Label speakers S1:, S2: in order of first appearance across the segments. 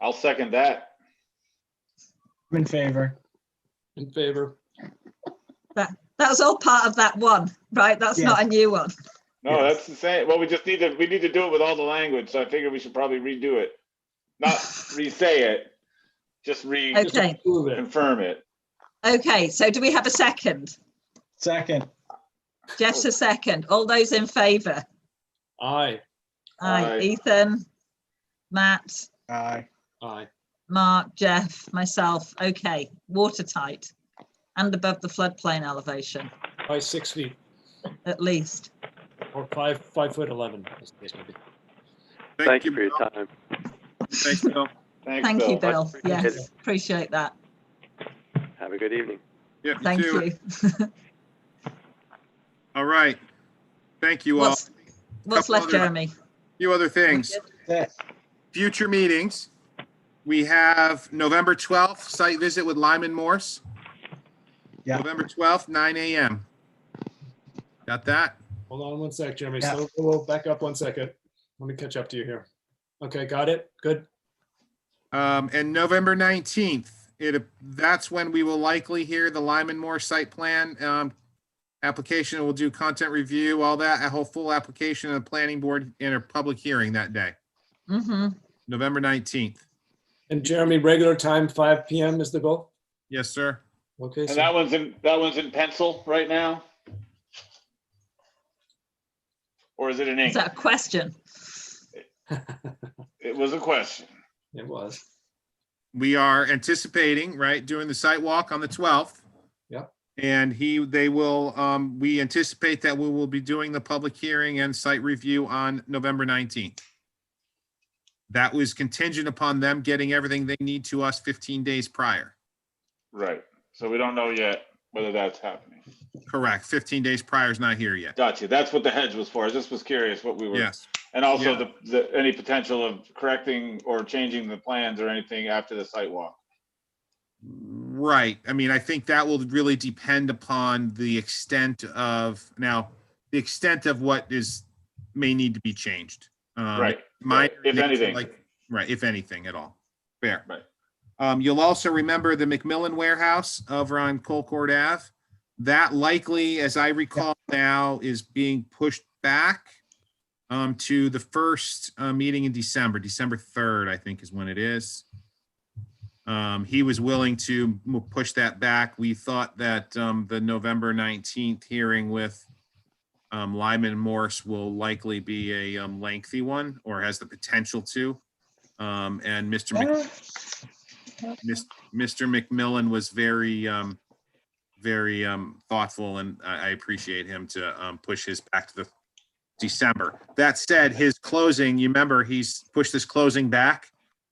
S1: I'll second that.
S2: I'm in favor.
S3: In favor.
S4: That's all part of that one, right? That's not a new one.
S1: No, that's the same. Well, we just need to, we need to do it with all the language, so I figure we should probably redo it. Not re-say it, just re-confirm
S3: Just
S4: Okay.
S3: approve it.
S1: it.
S4: Okay, so do we have a second?
S2: Second,
S4: Jeff's a second. All those in favour?
S3: Aye,
S4: Aye.
S1: Aye.
S4: Ethan, Matt,
S2: aye.
S3: aye.
S4: Mark, Jeff, myself. Okay, watertight and above the floodplain elevation,
S3: By six feet
S4: at least.
S3: or five, five foot 11. as the case may be.
S5: Thank you for your time.
S6: Thanks, Bill.
S1: Thanks,
S4: Thank you,
S1: Bill.
S4: Bill.
S5: Much appreciated.
S4: Yes, appreciate that.
S5: Have a good evening.
S6: Yeah,
S4: Thank
S6: too.
S4: you.
S6: All right. Thank you all.
S4: What's, what's
S6: Couple
S4: left,
S6: other-
S4: Jeremy?
S6: Few other things.
S2: That-
S6: Future meetings. We have November 12th, site visit with Lyman Morse.
S2: Yeah.
S6: November 12th, 9 AM. Got that?
S3: Hold on one sec, Jeremy.
S2: Yeah.
S3: So we'll back up one second. Let me catch up to you here. Okay, got it? Good.
S6: Um, and November 19th, it, that's when we will likely hear the Lyman Morse site plan, um, application. We'll do content review, all that, a whole full application of the planning board in a public hearing that day,
S4: Mm-hmm.
S6: November 19th.
S3: And Jeremy, regular time, 5 PM is the goal?
S6: Yes, sir.
S3: Okay,
S1: And
S3: so
S1: that one's in, that one's in pencil right now? Or is it in
S4: Is
S1: ink?
S4: that a question?
S1: It was a question.
S3: it was.
S6: we are anticipating, right, doing the site walk on the twelfth.
S3: Yep.
S6: And he, they will, um, we anticipate that we will be doing the public hearing and site review on November nineteenth. That was contingent upon them getting everything they need to us fifteen days prior.
S1: Right. So we don't know yet whether that's happening.
S6: Correct, fifteen days prior is not here yet.
S1: Gotcha. That's what the hedge was for. I just was curious what we were,
S6: Yes,
S1: and also the, the, any potential of correcting or changing the plans or anything after the site walk.
S6: right. I mean, I think that will really depend upon the extent of, now, the extent of what is, may need to be changed. Um,
S1: Right.
S6: My.
S1: If anything.
S6: like, Right, if anything at all. Fair.
S1: Right.
S6: Um, you'll also remember the McMillan Warehouse over on Colcord Ave. That likely, as I recall now, is being pushed back um, to the first uh, meeting in December, December 3rd, I think is when it is. Um, he was willing to m- push that back. We thought that um, the November 19th hearing with um, Lyman Morse will likely be a um, lengthy one or has the potential to. Um, and Mr. Mc- Mis- Mr. McMillan was very, um, very, um, thoughtful and I, I appreciate him to, um, push his back to the December. That said, his closing, you remember, he's pushed this closing back,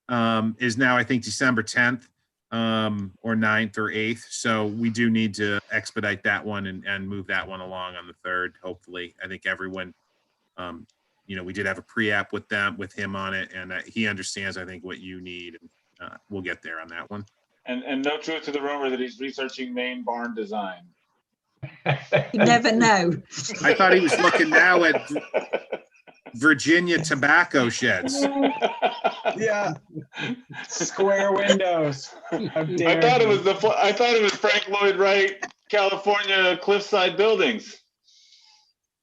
S6: um, is now, I think, December tenth, um, or 9th or eighth. So we do need to expedite that one and, and move that one along on the third, hopefully. I think everyone, um, you know, we did have a pre-app with them, with him on it and uh, he understands, I think, what you need uh, we'll get there on that one.
S1: And, and no truth to the rumor that he's researching Maine barn design.
S4: You never know.
S6: I thought he was looking now at Virginia tobacco sheds.
S2: Yeah. Square windows. How
S1: I
S2: dare
S1: thought it
S2: you.
S1: was the, fl- I thought it was Frank Lloyd Wright, California cliffside buildings.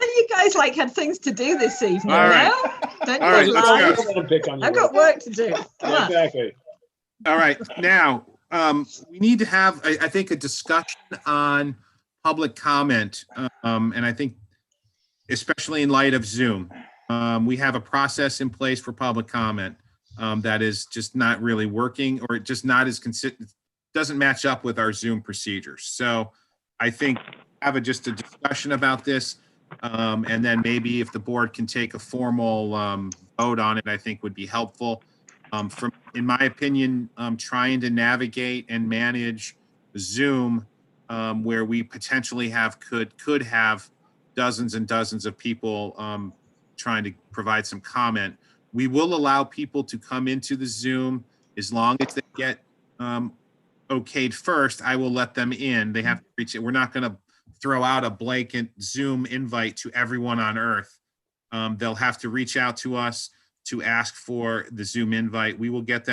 S4: You guys like had things to do this evening,
S6: All right.
S4: no? Don't
S6: All right,
S4: you
S6: let's
S4: lie.
S6: go.
S3: I'm gonna pick on you.
S4: I've got work to do. Come on.
S3: Exactly.
S6: All right, now, um, we need to have, I, I think, a discussion on public comment. Um, and I think especially in light of Zoom, um, we have a process in place for public comment um, that is just not really working or just not as consistent, doesn't match up with our Zoom procedures. So I think have a, just a discussion about this. Um, and then maybe if the board can take a formal, um, vote on it, I think would be helpful. Um, from, in my opinion, um, trying to navigate and manage Zoom, um, where we potentially have, could, could have dozens and dozens of people, um, trying to provide some comment. We will allow people to come into the Zoom as long as they get, um, okayed first. I will let them in. They have to reach it. We're not gonna throw out a blanket Zoom invite to everyone on earth. Um, they'll have to reach out to us to ask for the Zoom invite. We will get that.